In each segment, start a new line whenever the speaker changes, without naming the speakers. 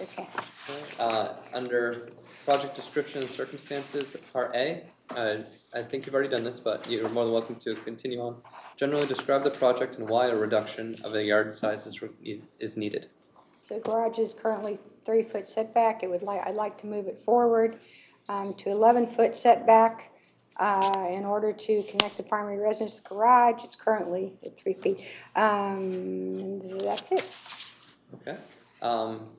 Okay.
Uh, Under project description and circumstances, part A, uh, I think you've already done this, but you're more than welcome to continue on. Generally describe the project and why a reduction of a yard size is, re- is needed.
So garage is currently three-foot setback. It would like, I'd like to move it forward um, to 11-foot setback uh, in order to connect the primary residence to garage. It's currently at three feet. Um, and That's it.
Okay? Um,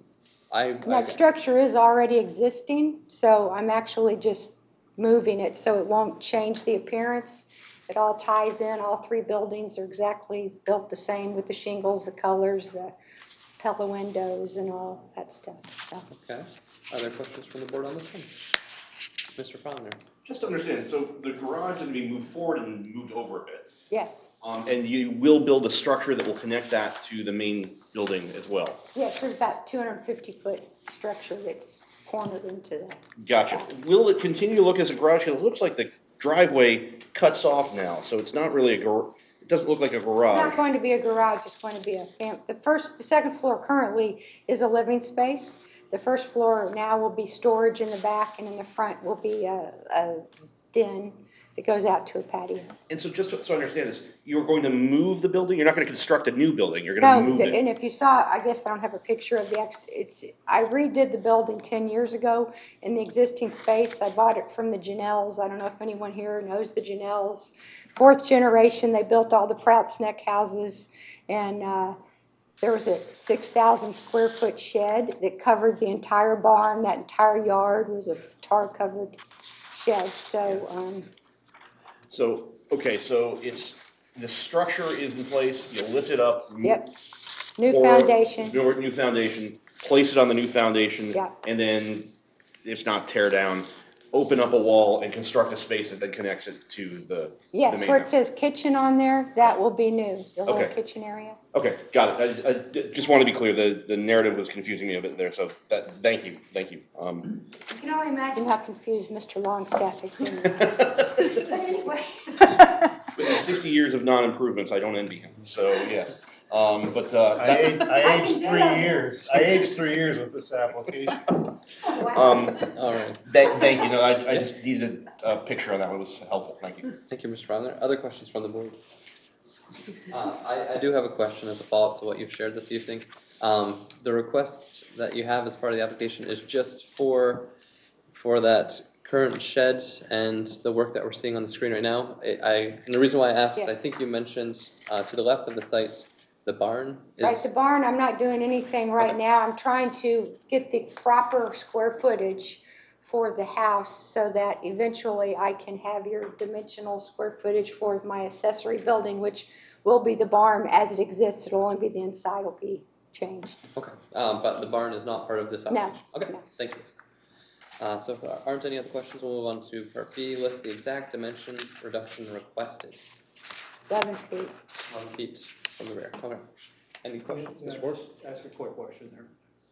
I,
And that structure is already existing, so I'm actually just moving it so it won't change the appearance. It all ties in, all three buildings are exactly built the same with the shingles, the colors, the pella windows and all that stuff, so.
okay. Are there questions from the board on this one? Mr. Fowler?
Just to understand, so the garage is gonna be moved forward and moved over a bit.
Yes,
Um, and you will build a structure that will connect that to the main building as well.
yeah, there's about 250-foot structure that's cornered into that.
Gotcha. Will it continue to look as a garage? 'Cause it looks like the driveway cuts off now, so it's not really a gar, it doesn't look like a
It's not
garage.
going to be a garage, it's going to be a fam, the first, the second floor currently is a living space. The first floor now will be storage in the back, and in the front will be a, a den that goes out to a patio.
And so just to- so I understand this, you're going to move the building? You're not gonna construct a new building, you're gonna
No,
move
the-
it?
and if you saw, I guess I don't have a picture of the, ex- it's, I redid the building 10 years ago in the existing space. I bought it from the Janelles. I don't know if anyone here knows the Janelles. Fourth generation, they built all the Prouts Neck houses, and uh, there was a 6,000 square foot shed that covered the entire barn. That entire yard was a tar-covered shed, so, um,
So, okay, so it's, the structure is in place, you lift it up. mo-
yep, new
or-
foundation.
New, new foundation, place it on the new foundation.
Yeah.
And then, if not tear down, open up a wall and construct a space that then connects it to the. the
Yes,
main
where it
house.
says kitchen on there, that will be new, the little
Okay.
kitchen area.
Okay, got it. I, I d- just want to be clear, the, the narrative was confusing me a bit there, so that, thank you, thank you. Um,
You can only imagine how confused Mr. Longstaff has been. But anyway.
but sixty years of non-improvements, I don't envy him, so yes. Um, but, uh,
I
that-
aged, I aged
do
three
that.
years, I aged three years with this application.
um,
All right.
that, thank you, no, I, I just needed a picture on that one, it was helpful, thank you.
Thank you, Mr. Fowler. Other questions from the board? Uh, I, I do have a question as a follow-up to what you've shared this evening. Um, the request that you have as part of the application is just for, for that current shed and the work that we're seeing on the screen right now. I, I, and the reason why I asked is I
Yes.
think you mentioned, uh, to the left of the site, the barn
Right,
is,
the barn, I'm not doing anything right
Okay.
now. I'm trying to get the proper square footage for the house so that eventually I can have your dimensional square footage for my accessory building, which will be the barn as it exists. It'll only be the inside will be changed.
okay, um, but the barn is not part of this application? Okay,
no.
thank you. Uh, so if there aren't any other questions, we'll move on to part B, list the exact dimension reduction requested.
11 feet.
on the feet from the rear, okay. Any questions, Mr. Morse?
Ask a quick question there.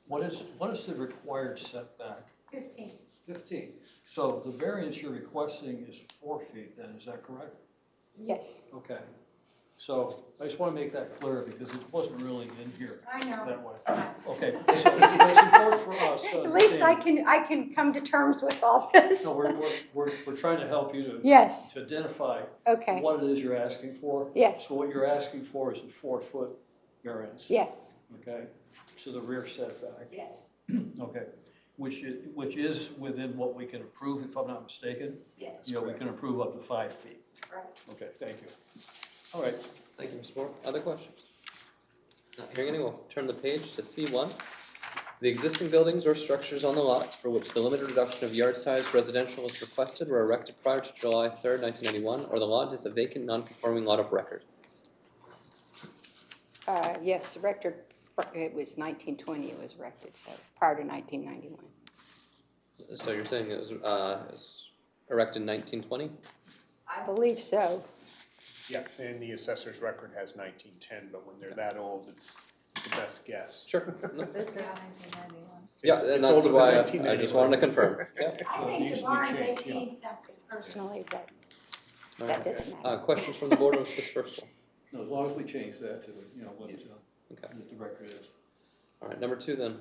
What is, what is the required setback?
15.
Fifteen. So the variance you're requesting is four feet then, is that correct?
Yes.
Okay. So I just want to make that clear because it wasn't really in here
I know.
that way. Okay, so it's it's important for us to
At least I
understand.
can, I can come to terms with all this.
No, we're, we're- we're, we're trying to help you to,
Yes,
to identify
okay,
what it is you're asking for.
Yes.
So what you're asking for is a four-foot variance,
yes.
okay, to the rear setback.
Yes.
Okay, which is, which is within what we can approve, if I'm not mistaken?
Yes.
You know, we can approve up to five feet.
Right.
Okay, thank you. All right,
Thank you, Mr. Moore. Other questions? Not hearing any, we'll turn the page to C one. The existing buildings or structures on the lots for which the limited reduction of yard size residential is requested were erected prior to July third, nineteen ninety-one, or the lot is a vacant, non-conforming lot of record.
Uh, yes, erected, it was nineteen twenty it was erected, so prior to nineteen ninety-one.
So you're saying it was, uh, it was erected nineteen twenty?
I believe so.
Yeah, and the assessor's record has nineteen ten, but when they're that old, it's, it's the best guess.
Sure. No. Yeah,
It's-
and
it's
that's
older than
why I- I
1991.
just wanted to confirm. Yeah.
I think the Needs to be barn's changed, yeah. 18
something personally, but
All
that
right.
doesn't matter.
Uh, questions from the board on this first one?
no, as long as we change that to, you know, what, uh,
Okay,
what the record is.
all right, number two then.